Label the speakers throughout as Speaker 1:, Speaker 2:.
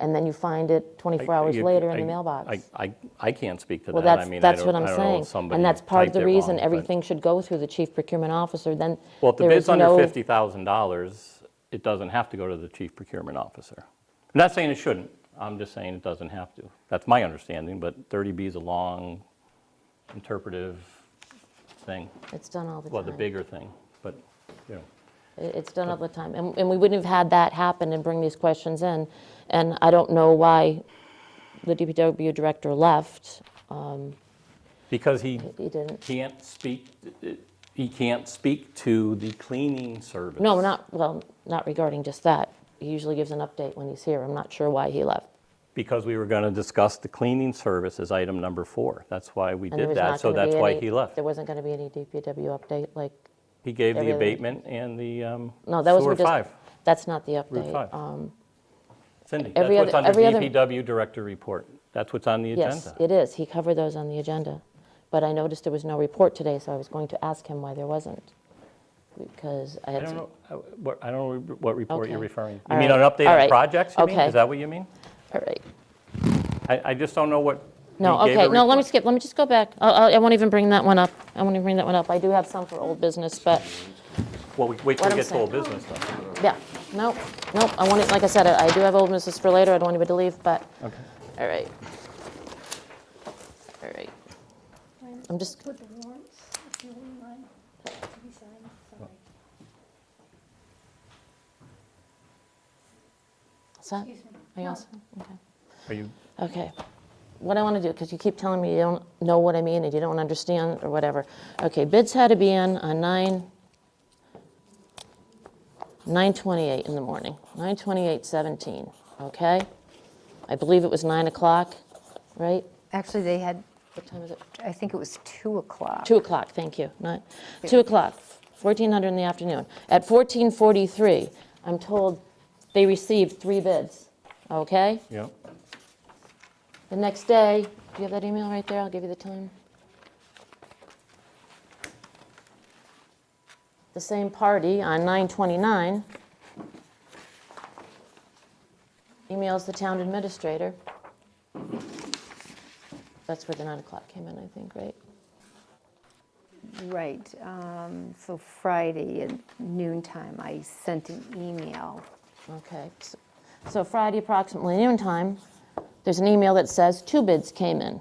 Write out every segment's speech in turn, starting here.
Speaker 1: and then you find it 24 hours
Speaker 2: You-
Speaker 1: later in
Speaker 2: I-
Speaker 1: the mailbox.
Speaker 2: I, I, I can't speak to that.
Speaker 1: Well,
Speaker 2: I
Speaker 1: that's,
Speaker 2: mean, I
Speaker 1: that's
Speaker 2: don't-
Speaker 1: what
Speaker 2: I
Speaker 1: I'm
Speaker 2: don't know if
Speaker 1: saying.
Speaker 2: somebody
Speaker 1: And that's part of
Speaker 2: typed
Speaker 1: the
Speaker 2: it wrong,
Speaker 1: reason
Speaker 2: but-
Speaker 1: everything should go through the chief procurement officer, then
Speaker 2: Well, if the
Speaker 1: there is
Speaker 2: bid's under
Speaker 1: no.
Speaker 2: $50,000, it doesn't have to go to the chief procurement officer. I'm not saying it shouldn't, I'm just saying it doesn't have to. That's my understanding, but 30B is a long interpretive thing,
Speaker 1: It's done all the time.
Speaker 2: well, the bigger thing, but, you know.
Speaker 1: It- It's done all the time. And, and we wouldn't have had that happen and bring these questions in. And I don't know why the DPW director left.
Speaker 2: Because he
Speaker 1: He didn't.
Speaker 2: can't speak, he can't speak to the cleaning service.
Speaker 1: No, not, well, not regarding just that. He usually gives an update when he's here. I'm not sure why he left.
Speaker 2: Because we were going to discuss the cleaning service as item number four. That's why we
Speaker 1: And there
Speaker 2: did
Speaker 1: was
Speaker 2: that,
Speaker 1: not
Speaker 2: so
Speaker 1: gonna be
Speaker 2: that's why
Speaker 1: any-
Speaker 2: he left.
Speaker 1: There wasn't going to be any DPW update, like,
Speaker 2: He gave the
Speaker 1: everything-
Speaker 2: abatement and the um,
Speaker 1: no, that was.
Speaker 2: sewer
Speaker 1: we just-
Speaker 2: five.
Speaker 1: That's not the update.
Speaker 2: Route five.
Speaker 1: Um,
Speaker 2: Cindy, that's
Speaker 1: every
Speaker 2: what's
Speaker 1: other-
Speaker 2: under
Speaker 1: every other-
Speaker 2: DPW Director Report. That's what's on the
Speaker 1: Yes,
Speaker 2: agenda.
Speaker 1: it is. He covered those on the agenda. But I noticed there was no report today, so I was going to ask him why there wasn't. Because I
Speaker 2: I
Speaker 1: had.
Speaker 2: don't
Speaker 1: some-
Speaker 2: know, uh, what- I don't know what report you're
Speaker 1: Okay.
Speaker 2: referring. You
Speaker 1: All
Speaker 2: mean
Speaker 1: right.
Speaker 2: an update
Speaker 1: All
Speaker 2: on
Speaker 1: right.
Speaker 2: projects, you mean?
Speaker 1: Okay.
Speaker 2: Is that what you mean?
Speaker 1: All right.
Speaker 2: I I just don't know what he
Speaker 1: No,
Speaker 2: gave a
Speaker 1: okay, no, let me
Speaker 2: report.
Speaker 1: skip, let me just go back. I'll- I'll- I won't even bring that one up. I won't even bring that one up. I do have some for old business, but,
Speaker 2: Well, we- wait
Speaker 1: what
Speaker 2: till we
Speaker 1: I'm
Speaker 2: get to
Speaker 1: saying.
Speaker 2: old business, though.
Speaker 1: yeah, nope, nope. I want it, like I said, I I do have old business for later. I don't want anybody to leave, but,
Speaker 2: Okay.
Speaker 1: all right. All right. I'm just,
Speaker 3: With the warrants, if you wouldn't mind, to be signed, sorry.
Speaker 1: what's that?
Speaker 3: Excuse me.
Speaker 1: Are you
Speaker 3: No,
Speaker 1: also, okay.
Speaker 2: Are you,
Speaker 1: Okay. What I want to do, because you keep telling me you don't know what I mean and you don't understand or whatever. Okay, bids had to be in on nine, 9:28 in the morning, 9:28:17, okay? I believe it was 9 o'clock, right?
Speaker 4: Actually, they had,
Speaker 1: What time is it?
Speaker 4: I think it was 2 o'clock.
Speaker 1: 2 o'clock, thank you, not, 2 o'clock, 1400 in the afternoon. At 14:43, I'm told they received three bids, okay?
Speaker 2: yeah.
Speaker 1: The next day, do you have that email right there? I'll give you the time. The same party on 9/29 emails the town administrator. That's where the 9 o'clock came in, I think, right?
Speaker 4: Right, um, so Friday at noontime, I sent an email.
Speaker 1: Okay. s- So Friday approximately noon time, there's an email that says two bids came in.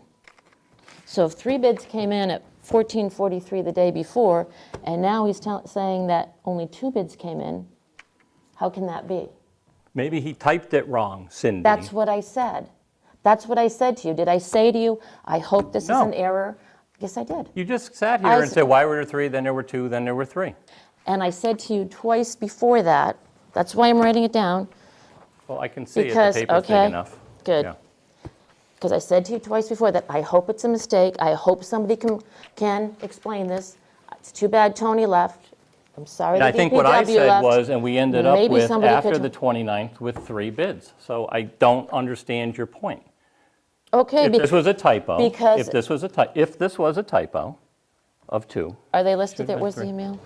Speaker 1: So if three bids came in at 14:43 the day before, and now he's tell- saying that only two bids came in, how can that be?
Speaker 2: Maybe he typed it wrong, Cindy.
Speaker 1: That's what I said. That's what I said to you. Did I say to you, I hope this is
Speaker 2: No.
Speaker 1: an error? Yes, I did.
Speaker 2: You just sat
Speaker 1: I
Speaker 2: here and
Speaker 1: s-
Speaker 2: said, why were there three, then there were two, then there were three?
Speaker 1: And I said to you twice before that, that's why I'm writing it down,
Speaker 2: Well, I can see it, the
Speaker 1: Because-
Speaker 2: paper's
Speaker 1: okay,
Speaker 2: big enough.
Speaker 1: good.
Speaker 2: Yeah.
Speaker 1: because I said to you twice before that I hope it's a mistake. I hope somebody can, can explain this. It's too bad Tony left. I'm sorry
Speaker 2: And
Speaker 1: the
Speaker 2: I
Speaker 1: DPW
Speaker 2: think what I said
Speaker 1: left.
Speaker 2: was, and we ended up
Speaker 1: Maybe
Speaker 2: with,
Speaker 1: somebody
Speaker 2: after
Speaker 1: could-
Speaker 2: the 29th, with three bids. So I don't understand your point.
Speaker 1: okay,
Speaker 2: If
Speaker 1: be-
Speaker 2: this was a typo,
Speaker 1: because-
Speaker 2: if this was a typo, if this was a typo of two,
Speaker 1: are they listed there?
Speaker 2: Should've been
Speaker 1: Where's the
Speaker 2: three.
Speaker 1: email?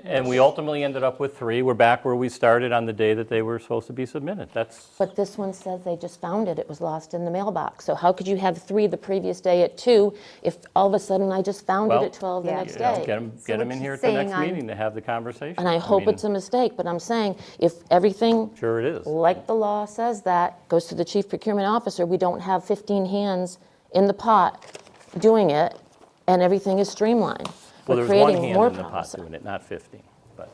Speaker 2: and we ultimately ended up with three, we're back where we started on the day that they were supposed to be submitted. That's,
Speaker 1: But this one says they just found it. It was lost in the mailbox. So how could you have three the previous day at two if all of a sudden I just found
Speaker 2: Well,
Speaker 1: it at 12 the
Speaker 4: Yeah.
Speaker 1: next
Speaker 2: you know,
Speaker 1: day?
Speaker 2: get them,
Speaker 4: So
Speaker 2: get 'em
Speaker 4: what
Speaker 2: in
Speaker 4: she's
Speaker 2: here at the
Speaker 4: saying
Speaker 2: next
Speaker 4: on-
Speaker 2: mean to have the conversation.
Speaker 1: and I hope
Speaker 2: mean,
Speaker 1: it's a mistake, but I'm saying if everything
Speaker 2: Sure it is.
Speaker 1: like the law says that, goes to the chief procurement officer, we don't have 15 hands in the pot doing it, and everything is streamlined.
Speaker 2: Well,
Speaker 1: We're
Speaker 2: there's one
Speaker 1: creating
Speaker 2: hand
Speaker 1: more
Speaker 2: in the pot
Speaker 1: problems.
Speaker 2: doing it, not 15, but.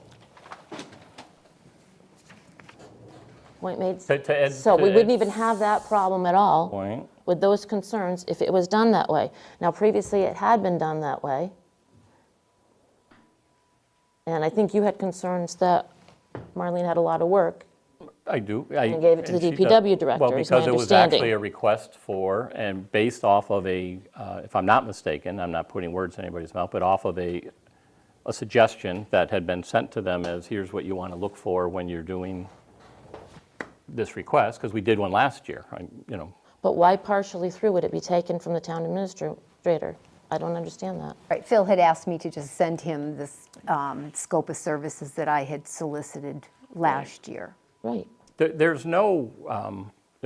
Speaker 1: Point made.
Speaker 2: To- to Ed's-
Speaker 1: So
Speaker 2: to
Speaker 1: we wouldn't
Speaker 2: Ed's-
Speaker 1: even have that problem at all.
Speaker 2: Point.
Speaker 1: With those concerns if it was done that way. Now, previously, it had been done that way. And I think you had concerns that Marlene had a lot of work.
Speaker 2: I do. I-
Speaker 1: And gave it to the
Speaker 2: she does-
Speaker 1: DPW director,
Speaker 2: Well,
Speaker 1: is my
Speaker 2: because it was
Speaker 1: understanding.
Speaker 2: actually a request for, and based off of a, uh, if I'm not mistaken, I'm not putting words in anybody's mouth, but off of a, a suggestion that had been sent to them as, here's what you want to look for when you're doing this request, because we did one last year, I- you know.
Speaker 1: But why partially through would it be taken from the town administrator? I don't understand that.
Speaker 4: Right, Phil had asked me to just send him this um, scope of services that I had solicited last year.
Speaker 1: Right.
Speaker 2: There- There's no, um,